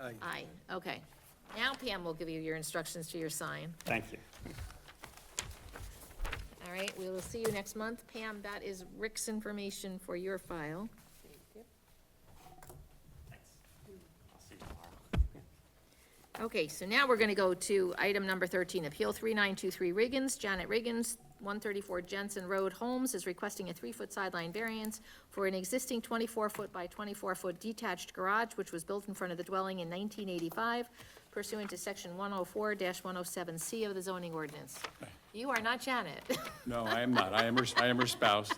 Aye. Aye, okay. Now Pam will give you your instructions to your sign. Thank you. All right, we will see you next month. Pam, that is Rick's information for your file. I'll see you tomorrow. Okay, so now we're gonna go to item number thirteen, Appeal three nine two three Riggins, Janet Riggins, one thirty-four Jensen Road, Holmes, is requesting a three-foot sideline variance for an existing twenty-four foot by twenty-four foot detached garage, which was built in front of the dwelling in nineteen eighty-five pursuant to section one oh four one oh seven C of the zoning ordinance. You are not Janet. No, I am not. I am her, I am her spouse.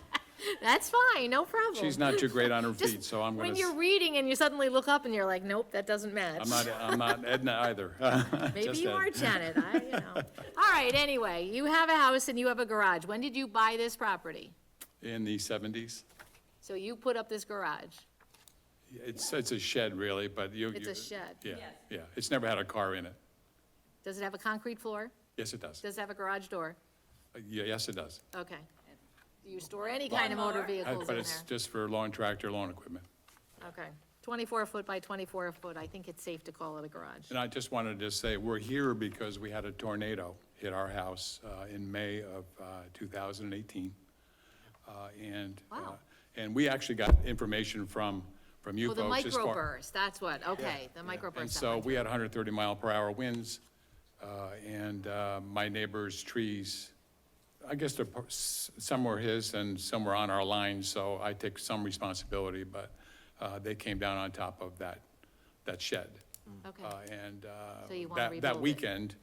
That's fine, no problem. She's not too great on her Just feet, so I'm gonna, When s- you're reading and you suddenly look up and you're like, nope, that doesn't match. I'm not, I'm not Edna either. Maybe Just you Ed. are Janet, I, you know. All right, anyway, you have a house and you have a garage. When did you buy this property? In the seventies. So you put up this garage. It's, it's a shed really, but you. It's a you- shed. Yeah, yeah. It's never had a car in it. Does it have a concrete floor? Yes, it does. Does it have a garage door? Uh, Yeah, yes, it does. Okay. Do you store any kind of motor Uh, vehicles But in it's there? just for lawn tractor, lawn equipment. Okay. Twenty-four foot by twenty-four foot, I think it's safe to call it a garage. And I just wanted to say, we're here because we had a tornado hit our house uh, in May of uh, 2018. Uh, And, uh, Wow. and we actually got information from, from you Oh, folks. the as far- microburst, that's what, okay, the Yeah. microburst. And that so one. we had 130 mile per hour winds, uh, and uh, my neighbor's trees, I guess they're, par- s- some were his and some were on our line, so I take some responsibility, but uh, they came down on top of that, that shed. Okay. Uh, And uh, So you wanna that, rebuild that it. weekend,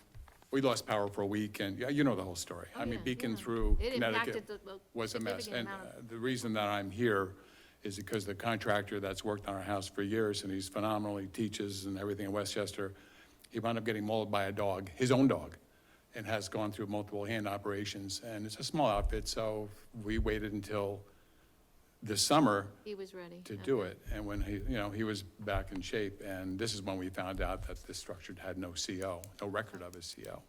we lost power for a week, and, yeah, you know the whole story. I mean, Oh, yeah, Beacon yeah. through It Connecticut impacted the- the was a mess. significant And amount of- uh, the reason that I'm here is because the contractor that's worked on our house for years, and he's phenomenally teaches and everything in Westchester, he wound up getting mauled by a dog, his own dog, and has gone through multiple hand operations. And it's a small outfit, so we waited until this summer He was ready. to okay. do it. And when he, you know, he was back in shape, and this is when we found out that this structure had no CO, no record of a Mm-hmm. CO.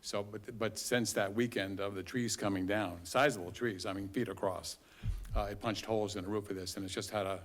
So, but, but since that weekend of the trees coming down, sizable trees, I mean, feet across, uh, it punched holes in the roof of this, and it's just had a,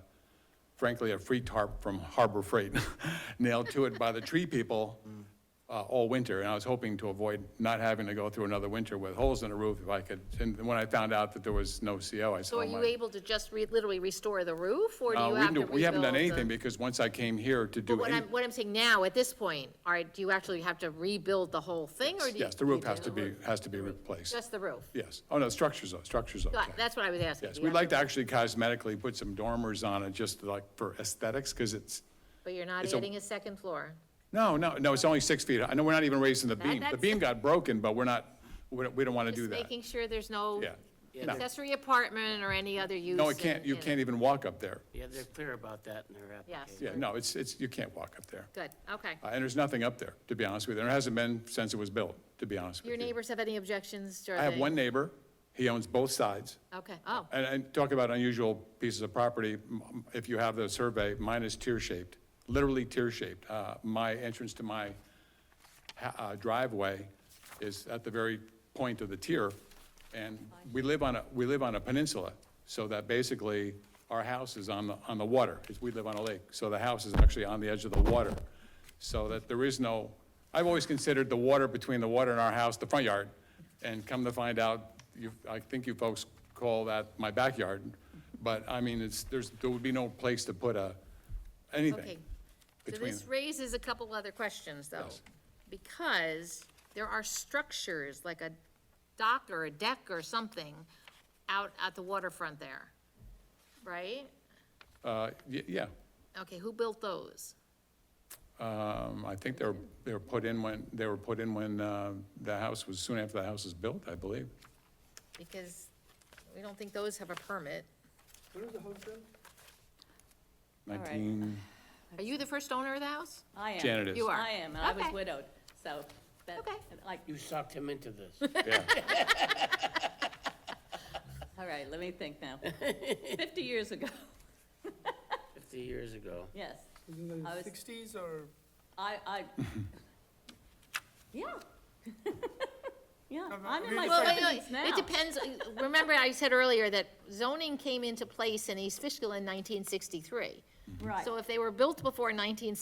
frankly, a free tarp from Harbor Freight nailed to it by the tree people Mm. uh, all winter, and I was hoping to avoid not having to go through another winter with holes in the roof if I could. And when I found out that there was no CO, I said, So are "Oh you my- able to just re, literally restore the roof, or do uh, you we have to do- rebuild? We haven't done the- anything because once I came here to But do, what any- I'm, what I'm saying now, at this point, are, do you actually have to rebuild the whole thing, or do you? yes, the you roof do has the to be, roof? has to be replaced. Just the roof? Yes. Oh, no, structure's, o- structure's Got- okay. That's what I was asking. Yes, Do you we'd have like to actually cosmetically put some dormers on it, just like for aesthetics, because it's, But you're not it's a- adding a second floor? no, no, no, it's only six feet. I know we're not even raising the beam. The that's- beam got broken, but we're not, we don't, we don't want to do Just that. making sure there's no Yeah. Yeah, no. accessory apartment or any other use. No, it in- can't, you in it. can't even walk up there. Yeah, they're clear about that in their application. Yeah, no, it's, it's, you can't walk up there. Good, okay. Uh, And there's nothing up there, to be honest with you. There hasn't been since it was built, to be honest with you. Your neighbors have any objections to? I have one neighbor. He owns both sides. Okay, oh, And, and talk about unusual pieces of property, m- m- if you have the survey, mine is tear-shaped, literally tear-shaped. Uh, my entrance to my ha- uh, driveway is at the very point of the tier. And we live on a, we live on a peninsula, so that basically our house is on the, on the water. It's- We live on a lake, so the house is actually on the edge of the water. So that there is no, I've always considered the water between the water and our house, the front yard. And come to find out, you, I think you folks call that my backyard. But I mean, it's, there's, there would be no place to put a, Okay. anything So between. this raises a couple other questions, though. Yes. Because there are structures, like a dock or a deck or something, out at the waterfront there, right? Uh, y- yeah. Okay, who built those? Um, I think they were, they were put in when, they were put in when, uh, the house was, soon after the house was built, I believe. Because we don't think those have a permit. right. Nineteen, Are you the first owner of the house? I am. Janet is. You are. I am, and I was Okay. widowed, so that, Okay. like, You sucked him into this. yeah. all right, let me think now. Fifty years ago, Fifty years ago. yes. In I the was- sixties or? I, I, yeah. Yeah, No, no, I'm in we my just- Well, wait, seventies wait, it now. depends, remember I said earlier that zoning came into place in East Fishkill in nineteen sixty-three. Right. So if they were built before nineteen sixty-three,